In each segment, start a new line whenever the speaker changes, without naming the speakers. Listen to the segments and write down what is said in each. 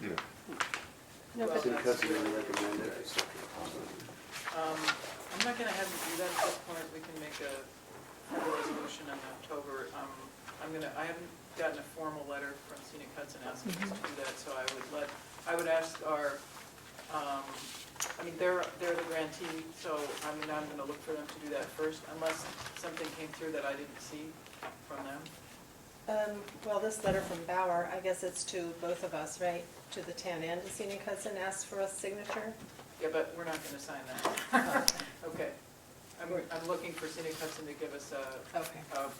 Yeah.
No, but-
City custody recommended.
Um, I'm not gonna have you do that at this point, we can make a resolution in October. Um, I'm gonna, I haven't gotten a formal letter from Scenic Hudson asking us to do that, so I would let, I would ask our, um, I mean, they're, they're the grantee, so I mean, I'm gonna look for them to do that first, unless something came through that I didn't see from them.
Um, Well, this letter from Bauer, I guess it's to both of us, right? To the town and to Senior Hudson, asked for a signature?
Yeah, but we're not gonna sign that. Okay. I'm, I'm looking for Scenic Hudson to give us a,
Okay.
a um,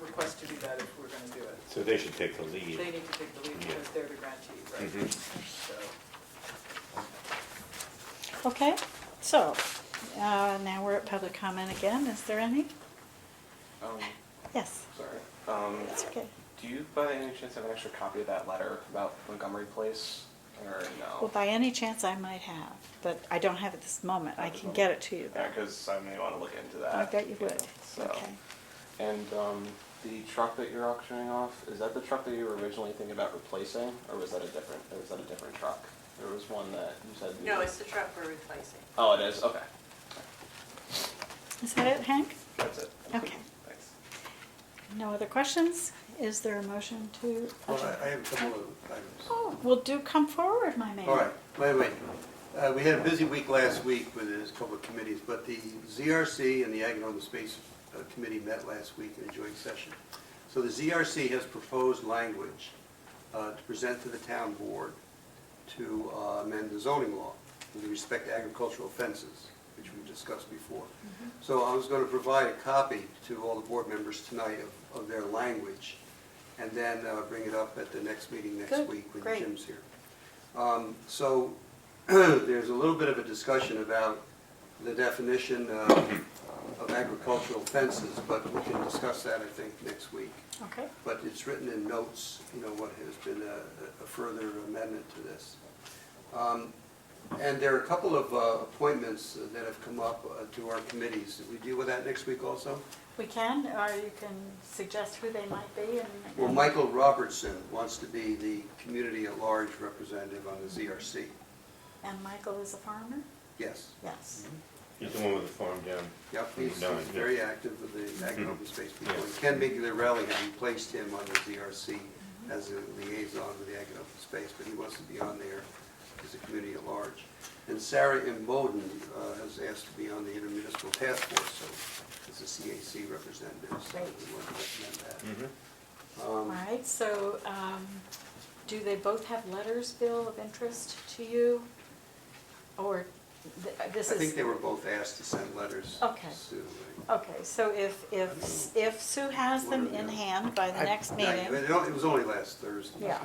request to do that if we're gonna do it.
So they should take the lead. Mm-hmm.
They need to take the lead because they're the grantee, right?
Mhm.
So,
Okay, so uh, now we're at public comment again. Is there any?
Um,
Yes,
sorry. Um,
that's okay.
do you by any chance have an extra copy of that letter about Montgomery Place, or
Well,
no?
by any chance I might have, but I don't have it this moment. I can get it to you though.
Because I may want to look into that.
I bet you would.
So,
Okay.
and um, the truck that you're auctioning off is that the truck that you were originally thinking about replacing, or was that a different? Or was that a different truck? There was one that you said. you-
No, it's the truck we're replacing.
Oh, it is. Okay,
Is that it, Hank?
that's it.
Okay.
Thanks.
No other questions? Is there a motion to?
Well, I I have a couple of items.
Oh, well, do come forward, my man.
All right, wait, wait. Uh, We had a busy week last week with a couple of committees, but the ZRC and the Ag and Open Space uh, Committee met last week in a joint session. So the ZRC has proposed language uh, to present to the town board to uh, amend the zoning law with respect to agricultural fences, which we discussed before. So I was going to provide a copy to all the board members tonight of- of their language, and then uh, bring it up at the next meeting next
Good,
week when
great.
Jim's here. Um, So there's a little bit of a discussion about the definition uh, of agricultural fences, but we can discuss that, I think, next week.
Okay,
But it's written in notes, you know, what has been a a further amendment to this. Um, And there are a couple of uh, appointments that have come up uh, to our committees. Did we deal with that next week also?
we can, or you can suggest who they might be and.
Well, Michael Robertson wants to be the community at large representative on the ZRC.
And Michael is a farmer?
Yes.
Yes.
He's the one with the farm down.
Yep, he's
Down,
he's
yeah.
very active with the Ag and Open Space people.
Yeah.
And Ken Migliarelli had replaced him on the DRC as a liaison with the Ag and Open Space, but he wants to be on there as a community at large. And Sarah Imboden uh, has asked to be on the intermunicipal task force, so as a CAC representative, so we want to recommend
Mhm.
that.
All
Um,
right, so um, do they both have letters, Bill, of interest to you? Or th- uh,
I
this
think
is,
they were both asked to send letters.
Okay.
to, uh,
okay, so if, if, if Sue has them in hand by the
I-
next
I-
meeting,
It it was only last Thursday.
yeah.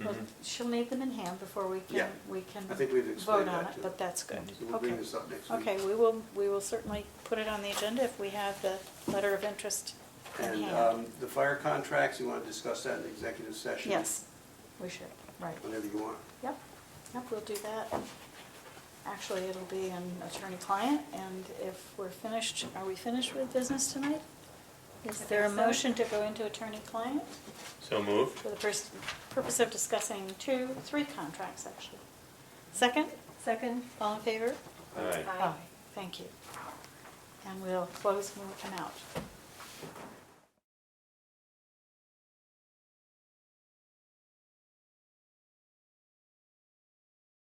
Well,
Mhm.
She'll need them in hand before we can,
Yeah.
we can
I think we've
vote
explained
on
that
it,
to
but
them.
that's good.
So we'll
Okay,
bring this up next week.
okay, we will, we will certainly put it on the agenda if we have the letter of interest in
And
hand.
um, the fire contracts, you want to discuss that in executive session?
Yes, we should, right.
Whenever you want.
Yep, yep, we'll do that. Actually, it'll be an attorney-client, and if we're finished, are we finished with business tonight? Is
I
there a
think so.
motion to go into attorney-client
So moved.
for the pers- purpose of discussing two, three contracts, actually? Second,
Second?
all in favor?
Aye.
Aye.
Thank you. And we'll close when we come out.